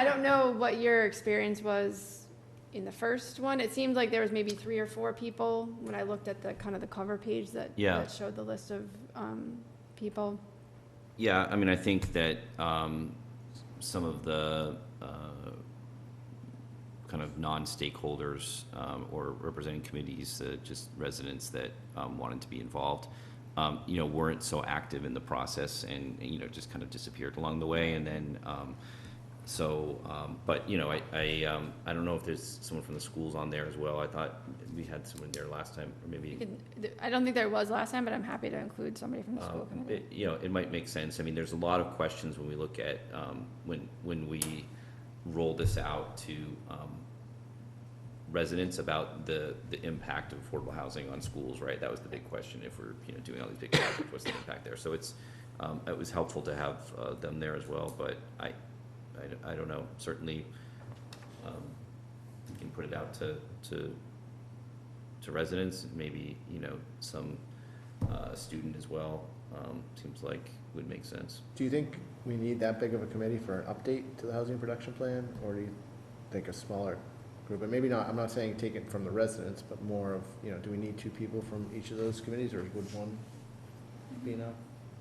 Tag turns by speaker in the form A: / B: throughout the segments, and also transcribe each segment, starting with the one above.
A: I don't know what your experience was in the first one. It seemed like there was maybe three or four people when I looked at the, kind of the cover page that,
B: Yeah.
A: that showed the list of, um, people.
B: Yeah, I mean, I think that um, some of the uh, kind of non-stakeholders um, or representing committees, uh, just residents that um, wanted to be involved, um, you know, weren't so active in the process and, you know, just kind of disappeared along the way. And then, um, so, um, but, you know, I, I, um, I don't know if there's someone from the schools on there as well. I thought we had someone there last time, or maybe.
A: You could- I don't think there was last time, but I'm happy to include somebody from the school
B: Um,
A: committee.
B: it- You know, it might make sense. I mean, there's a lot of questions when we look at, um, when, when we roll this out to um, residents about the, the impact of affordable housing on schools, right? That was the big question, if we're, you know, doing all these big projects, what's the impact there? So it's, um, it was helpful to have uh, them there as well, but I, I d- I don't know, certainly, um, we can put it out to, to, to residents, maybe, you know, some uh, student as well, um, seems like would make sense.
C: Do you think we need that big of a committee for an update to the housing production plan, or do you think a smaller group? And maybe not, I'm not saying take it from the residents, but more of, you know, do we need two people from each of those committees, or would one be enough?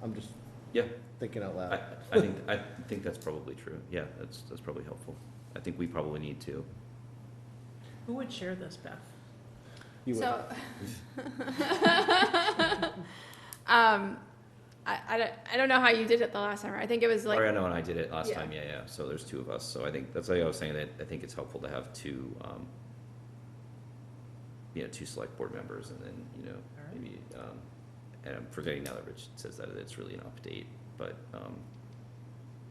C: I'm just
B: Yeah.
C: thinking out
B: I,
C: loud.
B: I think, I think that's probably true, yeah, that's, that's probably helpful. I think we probably need to.
D: Who would share this, Beth?
C: You would.
A: So. Um, I, I don't, I don't know how you did it the last time. I think it was like.
B: Mariano and I did it last
A: Yeah.
B: time, yeah, yeah, so there's two of us, so I think, that's why I was saying that I think it's helpful to have two, um, you know, two select board members and then, you know,
D: Alright.
B: maybe, um, and I'm forgetting now that Rich says that it's really an update, but, um,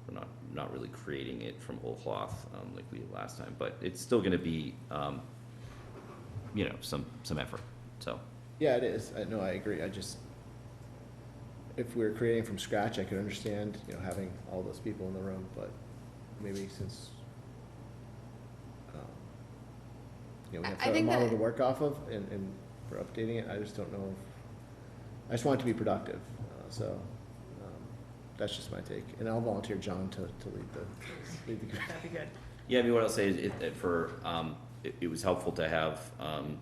B: we're not, not really creating it from whole cloth, um, like we did last time, but it's still gonna be, um, you know, some, some effort, so.
C: Yeah, it is. I, no, I agree. I just, if we were creating from scratch, I could understand, you know, having all those people in the room, but maybe since, um, you know,
A: I-
C: we
A: I
C: have a
A: think
C: model
A: that-
C: to work off of and, and for updating it, I just don't know. if- I just want it to be productive, uh, so, um, that's just my take. And I'll volunteer John to, to lead the, lead the group.
D: That'd be good.
B: Yeah, I mean, what I'll say is, it, it for, um, it, it was helpful to have, um,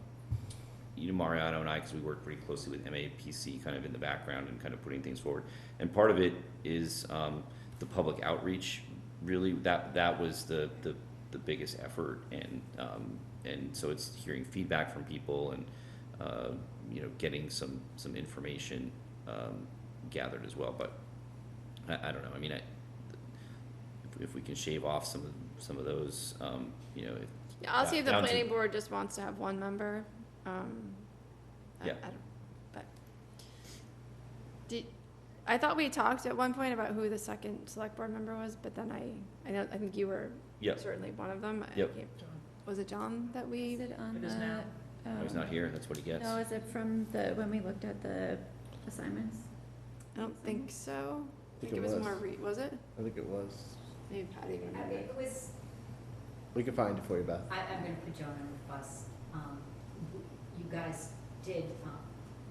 B: you know, Mariano and I, because we work pretty closely with MAPC kind of in the background and kind of putting things forward. And part of it is, um, the public outreach, really, that, that was the, the, the biggest effort. And, um, and so it's hearing feedback from people and, uh, you know, getting some, some information, um, gathered as well. But I, I don't know, I mean, I, if- if we can shave off some of, some of those, um, you know, if,
A: Yeah, I'll see if the
B: Down to-
A: planning board just wants to have one member. um, I-
B: Yeah.
A: I don't- But, did, I thought we talked at one point about who the second select board member was, but then I, I know, I think you were
B: Yep.
A: certainly one of them. I
B: Yep.
A: can't- Was it John that
E: Is
A: we,
E: it on
D: It is now.
E: the,
B: he's
E: um,
B: not here, that's what he gets.
E: No, is it from the, when we looked at the assignments?
A: I don't think so. I think
C: think
A: it
C: it
A: was
C: was.
A: more, re- was it?
C: I think it was.
A: Maybe Patty would
F: I
A: remember.
F: think it was,
C: We can find it for you, Beth.
F: I, I'm gonna put Joan on the bus. Um, you guys did, um,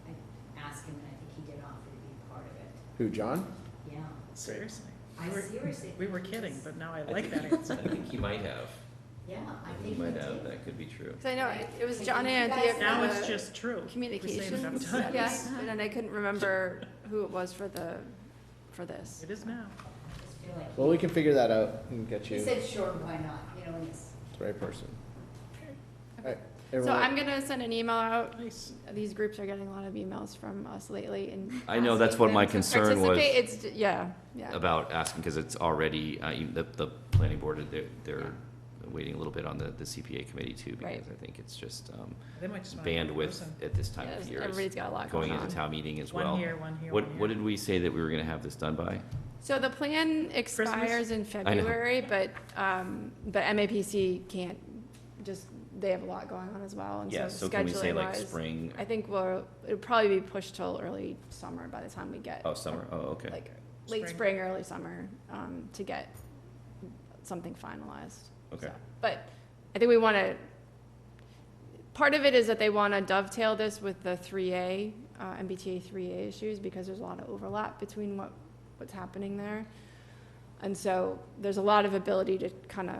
F: I asked him and I think he did offer to be part of it.
C: Who, John?
F: Yeah.
D: Seriously.
F: I
D: We were-
F: seriously.
D: We were
F: think
D: kidding,
F: it's-
D: but now I
B: I
D: like
B: think
D: that
B: he-
D: answer.
B: I think he might have.
F: Yeah, I
B: He
F: think he
B: might have,
F: did.
B: that could be true.
A: Cause I know, it- it was
F: I
A: John
F: think
A: and
F: you
A: Anthea.
F: guys-
A: for
D: Now
A: the-
D: it's just true. We say it enough
A: Communications,
D: times.
A: yes, and then I couldn't remember who it was for the, for this.
D: It is now.
F: I just feel like
C: Well,
F: he-
C: we can figure that out and get you
F: He
C: the
F: said, sure, why not, you know, and it's,
C: right person.
A: Okay.
C: Alright,
A: So
C: everyone,
A: I'm gonna send an email out.
D: Nice.
A: These groups are getting a lot of emails from us lately and.
B: I know, that's
A: asking
B: what my
A: them to
B: concern was.
A: participate. It's, j- yeah, yeah.
B: About asking, because it's already, uh, even the, the planning board, they're, they're waiting a little bit on the, the CPA committee too,
A: Right.
B: because I think it's just, um,
D: They might just want one
B: bandwidth
D: person.
B: at this time
A: Yeah,
B: of year is
A: Everybody's got a lot
B: going
A: going
B: into
A: on.
B: town meeting as well.
D: One here, one here,
B: What, what
D: one here.
B: did we say that we were gonna have this done by?
A: So the plan expires in
B: I know.
A: February, but, um, but MAPC can't, just, they have a lot going on as well. and
B: Yeah, so can we say like
A: scheduling-wise,
B: spring,
A: I think we'll, it'll probably be pushed till early summer by the time we get.
B: oh, summer, oh, okay.
A: Like, late
D: Spring.
A: spring, early summer, um, to get something finalized.
B: Okay.
A: So, But I think we wanna, part of it is that they wanna dovetail this with the three A, uh, MBTA three A issues, because there's a lot of overlap between what, what's happening there. And so there's a lot of ability to kinda